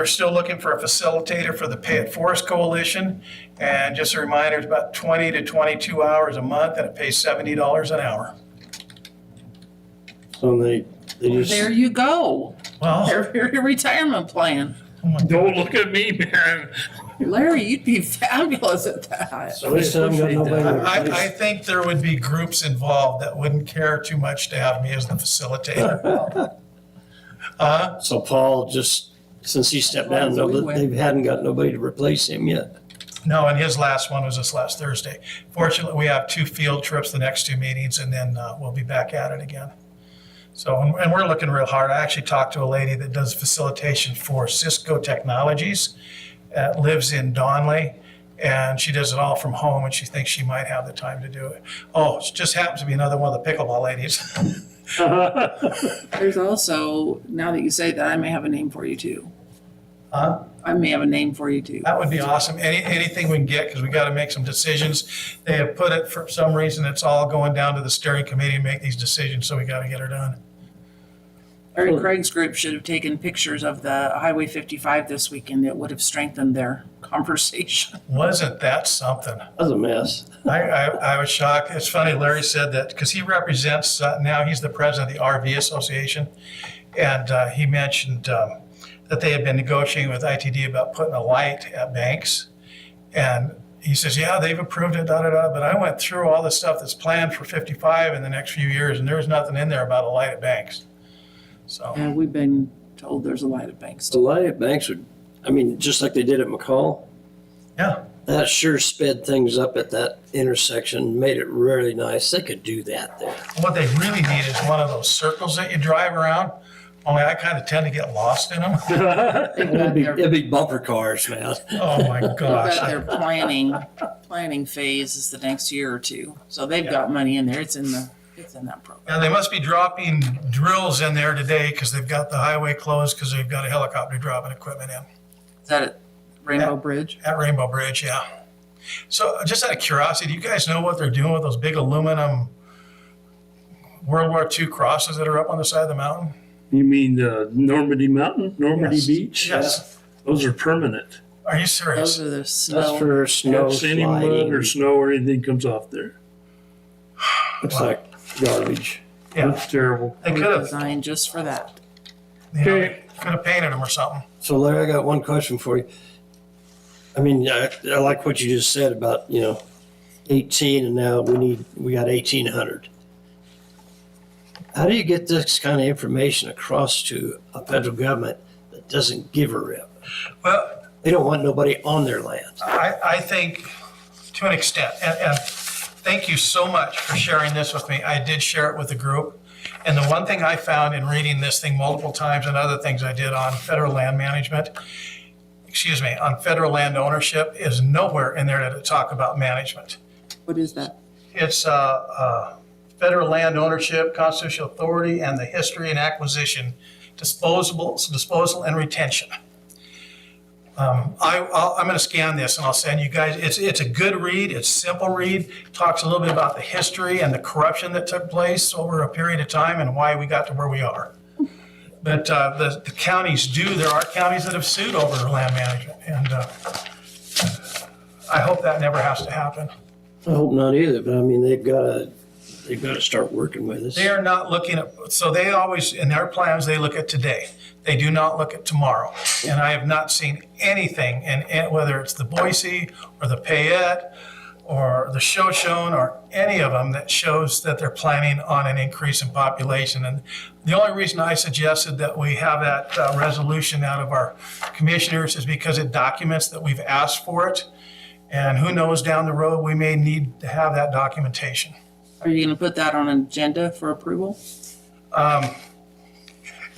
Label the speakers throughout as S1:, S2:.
S1: We're still looking for a facilitator for the Pay It Forest Coalition. And just a reminder, it's about 20 to 22 hours a month and it pays $70 an hour.
S2: So they, they
S3: There
S2: just,
S3: you go.
S1: Well,
S3: There's your retirement plan.
S4: Don't look at me, man.
S3: Larry, you'd be fabulous at that.
S2: so they still haven't got nobody to
S1: I, I
S2: replace.
S1: think there would be groups involved that wouldn't care too much to have me as the facilitator.
S2: So Paul just, since he stepped down, no- they hadn't got nobody to replace him yet.
S1: No, and his last one was this last Thursday. Fortunately, we have two field trips the next two meetings and then uh, we'll be back at it again. So, and and we're looking real hard. I actually talked to a lady that does facilitation for Cisco Technologies, uh, lives in Donley, and she does it all from home and she thinks she might have the time to do it. Oh, it just happens to be another one of the pickleball ladies.
S3: There's also, now that you say that, I may have a name for you too.
S1: Huh?
S3: I may have a name for you too.
S1: That would be awesome. Any, anything we can get, because we got to make some decisions. They have put it, for some reason, it's all going down to the steering committee to make these decisions, so we got to get her done.
S3: Larry Craig's group should have taken pictures of the Highway 55 this weekend. It would have strengthened their conversation.
S1: Wasn't that something?
S2: That's a mess.
S1: I, I, I was shocked. It's funny, Larry said that, because he represents, uh, now he's the president of the RV Association. And uh, he mentioned um, that they had been negotiating with ITD about putting a light at banks. And he says, yeah, they've approved it, da, da, da. But I went through all the stuff that's planned for 55 in the next few years, and there was nothing in there about a light at banks. So,
S3: And we've been told there's a lot of banks.
S2: The light at banks would, I mean, just like they did at McCall,
S1: yeah,
S2: that sure sped things up at that intersection, made it really nice. They could do that there.
S1: what they really need is one of those circles that you drive around, only I kind of tend to get lost in them.
S3: They've
S2: It'd
S3: got
S2: be,
S3: their-
S2: it'd be bumper cars, man.
S1: Oh, my gosh.
S3: But their planning, planning phase is the next year or two. So they've got money in there. It's in the, it's in that program.
S1: And they must be dropping drills in there today because they've got the highway closed because they've got a helicopter dropping equipment in
S3: Is that at Rainbow Bridge?
S1: at Rainbow Bridge, yeah. So uh, just out of curiosity, do you guys know what they're doing with those big aluminum World War II crosses that are up on the side of the mountain?
S4: You mean uh, Normandy Mountain, Normandy
S1: Yes.
S4: Beach?
S1: Yes.
S4: Those are permanent.
S1: Are you
S3: Those
S1: serious?
S3: are the
S2: That's
S3: snow.
S2: for snow
S4: If any mud
S2: sliding.
S4: or snow or anything comes off there,
S2: Looks like garbage.
S1: Yeah,
S4: that's terrible.
S1: they could
S3: were
S1: have,
S3: designed just for that.
S1: you know, could have painted them or something.
S2: So Larry, I got one question for you. I mean, I, I like what you just said about, you know, eighteen and now we need, we got eighteen hundred. How do you get this kind of information across to a federal government that doesn't give a rip?
S1: Well,
S2: They don't want nobody on their land.
S1: I, I think to an extent, and, and thank you so much for sharing this with me. I did share it with the group. And the one thing I found in reading this thing multiple times and other things I did on federal land management, excuse me, on federal land ownership is nowhere in there to talk about management.
S3: What is that?
S1: It's, uh, uh, federal land ownership, constitutional authority, and the history and acquisition, disposable, disposal and retention. Um, I, I'll, I'm gonna scan this and I'll send you guys, it's, it's a good read, it's simple read, talks a little bit about the history and the corruption that took place over a period of time and why we got to where we are. But, uh, the, the counties do, there are counties that have sued over land management, and, uh, I hope that never has to happen.
S2: I hope not either, but I mean, they've gotta, they've gotta start working with us.
S1: They are not looking at, so they always, in their plans, they look at today. They do not look at tomorrow. And I have not seen anything, in in- whether it's the Boise or the Payette or the Shoshone or any of them that shows that they're planning on an increase in population. And the only reason I suggested that we have that uh, resolution out of our commissioners is because it documents that we've asked for it. And who knows, down the road, we may need to have that documentation.
S3: Are you gonna put that on an agenda for approval?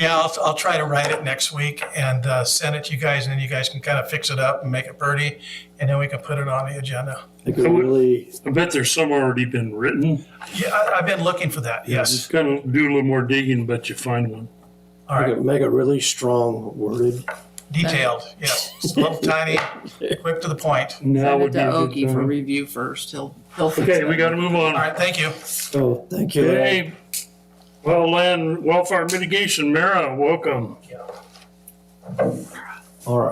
S1: Yeah, I'll, I'll try to write it next week and uh, send it to you guys, and then you guys can kind of fix it up and make it pretty, and then we can put it on the agenda.
S2: They could really,
S4: I bet there's some already been written.
S1: Yeah, I, I've been looking for that, yes.
S4: Just kind of do a little more digging, but you find one.
S1: All
S2: they
S1: right,
S2: could make a really strong worded.
S1: detailed, yes. It's a little tiny, quick to the point.
S4: Now
S3: Send it
S4: would
S3: to
S4: be a good
S3: Oki for
S4: time.
S3: review first. He'll, he'll. fix
S4: Okay,
S3: it.
S4: we gotta move on.
S1: All right, thank you.
S2: So, thank you. Larry.
S4: Hey, well, land welfare mitigation, Mara, welcome.
S2: All right.